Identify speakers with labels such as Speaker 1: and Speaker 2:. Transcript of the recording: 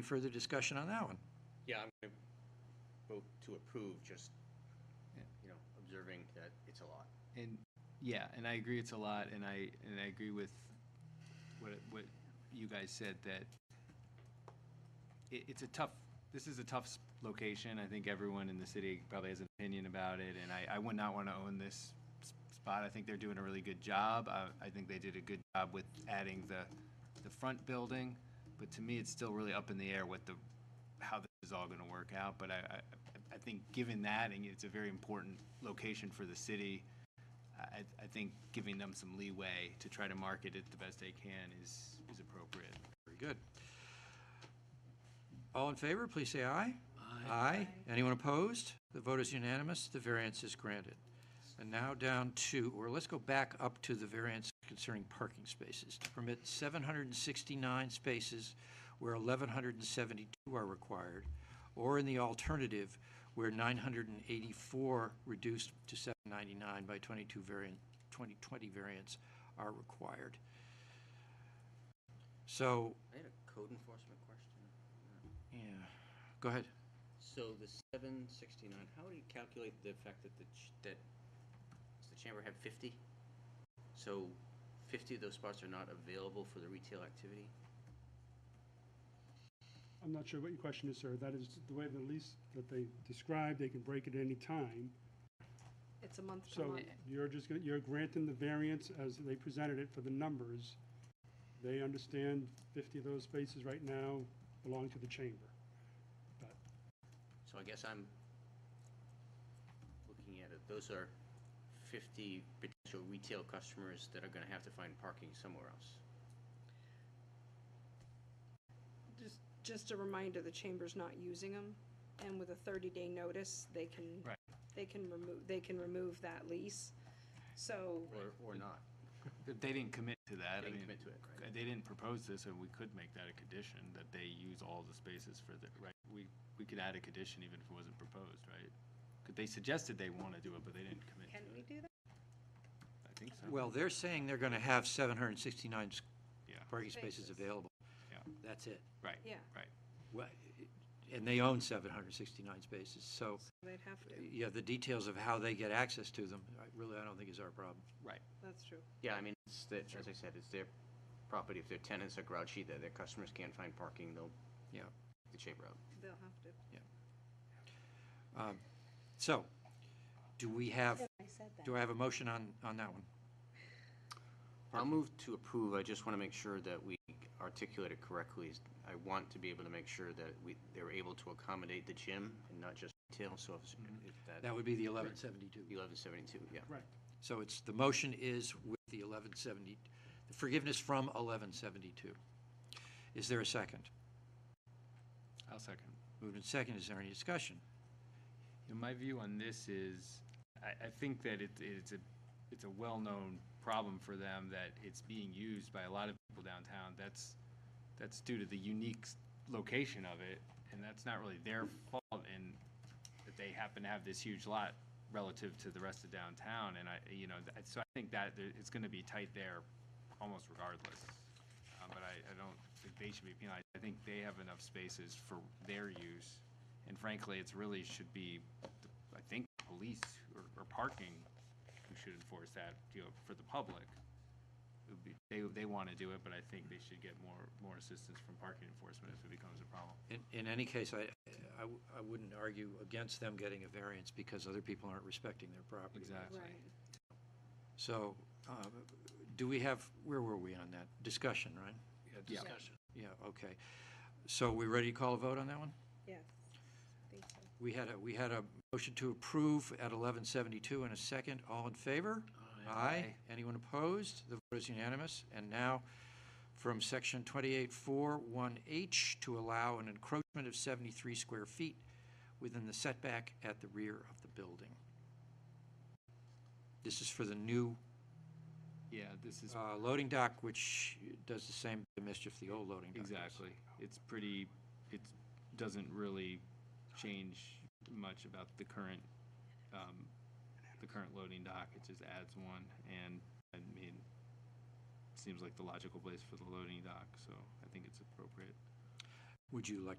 Speaker 1: Any further discussion on that one?
Speaker 2: Yeah, I'm going to vote to approve, just,
Speaker 3: Yeah.
Speaker 2: you know, observing that it's a lot.
Speaker 3: And yeah, and I agree it's a lot, and I and I agree with what what you guys said that it, it's a tough. This is a tough s- location. I think everyone in the city probably has an opinion about it, and I, I would not want to own this s- spot. I think they're doing a really good job. I, I think they did a good job with adding the the front building, but to me, it's still really up in the air what the how this is all going to work out. But I, I I think given that, and it's a very important location for the city. I, I think giving them some leeway to try to market it the best they can is, is appropriate.
Speaker 1: Very good. All in favor, please say aye. Aye. Anyone opposed? The vote is unanimous, the variance is granted. And now down to, or let's go back up to the variance concerning parking spaces. To permit 769 spaces where 1,172 are required, or in the alternative, where 984 reduced to 799 by 22 variant, 2020 variants are required. So,
Speaker 2: I had a code enforcement question.
Speaker 1: yeah, go ahead.
Speaker 2: So the seven sixty-nine, how do you calculate the fact that the, ch- that, does the chamber have fifty? So fifty of those spots are not available for the retail activity?
Speaker 4: I'm not sure what your question is, sir. That is the way the lease that they described, they can break it at any time.
Speaker 5: It's a month to
Speaker 4: So
Speaker 5: month.
Speaker 4: you're just, gonna- you're granting the variance as they presented it for the numbers. They understand 50 of those spaces right now belong to the chamber. But
Speaker 2: So I guess I'm looking at it, those are fifty potential retail customers that are gonna have to find parking somewhere else.
Speaker 5: Just, just a reminder, the chamber's not using them, and with a 30-day notice, they can,
Speaker 3: Right.
Speaker 5: they can remove, they can remove that lease. So,
Speaker 2: Or, or not,
Speaker 3: But They didn't commit to that. I
Speaker 2: They didn't
Speaker 3: mean,
Speaker 2: commit to it, right.
Speaker 3: They didn't propose this, and we could make that a condition, that they use all the spaces for the, right? We, we could add a condition even if it wasn't proposed, right? 'Cause they suggested they want to do it, but they didn't commit
Speaker 5: can
Speaker 3: to
Speaker 5: we
Speaker 3: it.
Speaker 5: do that?
Speaker 3: I think so.
Speaker 1: Well, they're saying they're going to have 769 s-
Speaker 3: Yeah,
Speaker 1: parking spaces
Speaker 5: Spaces.
Speaker 1: available.
Speaker 3: Yeah.
Speaker 1: That's it.
Speaker 3: right,
Speaker 5: Yeah,
Speaker 3: right.
Speaker 1: Wha- And they own 769 spaces, so,
Speaker 5: they'd have to,
Speaker 1: yeah, the details of how they get access to them, I- really, I don't think is our problem.
Speaker 5: that's true.
Speaker 2: Yeah, I mean, it's the, as I said, it's their property. If their tenants are grouchy, that their customers can't find parking, they'll.
Speaker 1: Yeah.
Speaker 2: The chamber out.
Speaker 5: They'll have to.
Speaker 1: Um, So, do we have,
Speaker 5: I said
Speaker 1: do I have a motion on, on that one?
Speaker 2: I'll move to approve. I just want to make sure that we articulate it correctly. I want to be able to make sure that we, they're able to accommodate the gym and not just retail, so if, if Mm-hmm. that,
Speaker 1: That would be the 1172.
Speaker 2: eleven seventy-two, yeah.
Speaker 1: So it's, the motion is with the 1170, the forgiveness from 1172. Is there a second?
Speaker 3: I'll second.
Speaker 1: Moved and second, is there any discussion?
Speaker 3: You know, my view on this is, I, I think that it, it's a, it's a well-known problem for them that it's being used by a lot of people downtown. That's, that's due to the unique s- location of it, and that's not really their fault in that they happen to have this huge lot relative to the rest of downtown, and I, you know, th- so I think that there- it's gonna be tight there almost regardless. Um, but I, I don't think they should be penalized. I think they have enough spaces for their use. And frankly, it's really should be, the- I think, police or, or parking who should enforce that, you know, for the public. It would be- They, they wanna do it, but I think they should get more, more assistance from parking enforcement if it becomes a problem.
Speaker 1: In, in any case, I, I, w- I wouldn't argue against them getting a variance because other people aren't respecting their property.
Speaker 5: Right.
Speaker 1: So, uh, do we have, where were we on that? Discussion, right?
Speaker 3: Yeah.
Speaker 1: Yeah, okay. So we ready to call a vote on that one?
Speaker 5: Yes, I think so.
Speaker 1: We had a, we had a motion to approve at 1172 and a second. All in favor? Aye. Anyone opposed? The vote is unanimous. And now, from section 284-1H, to allow an encroachment of 73 square feet within the setback at the rear of the building. This is for the new
Speaker 3: Yeah, this is
Speaker 1: uh, loading dock, which does the same mischief the old loading dock does.
Speaker 3: Exactly. It's pretty, it doesn't really change much about the current, um, the current loading dock. It just adds one and, I mean, seems like the logical place for the loading dock, so I think it's appropriate.
Speaker 1: Would you like to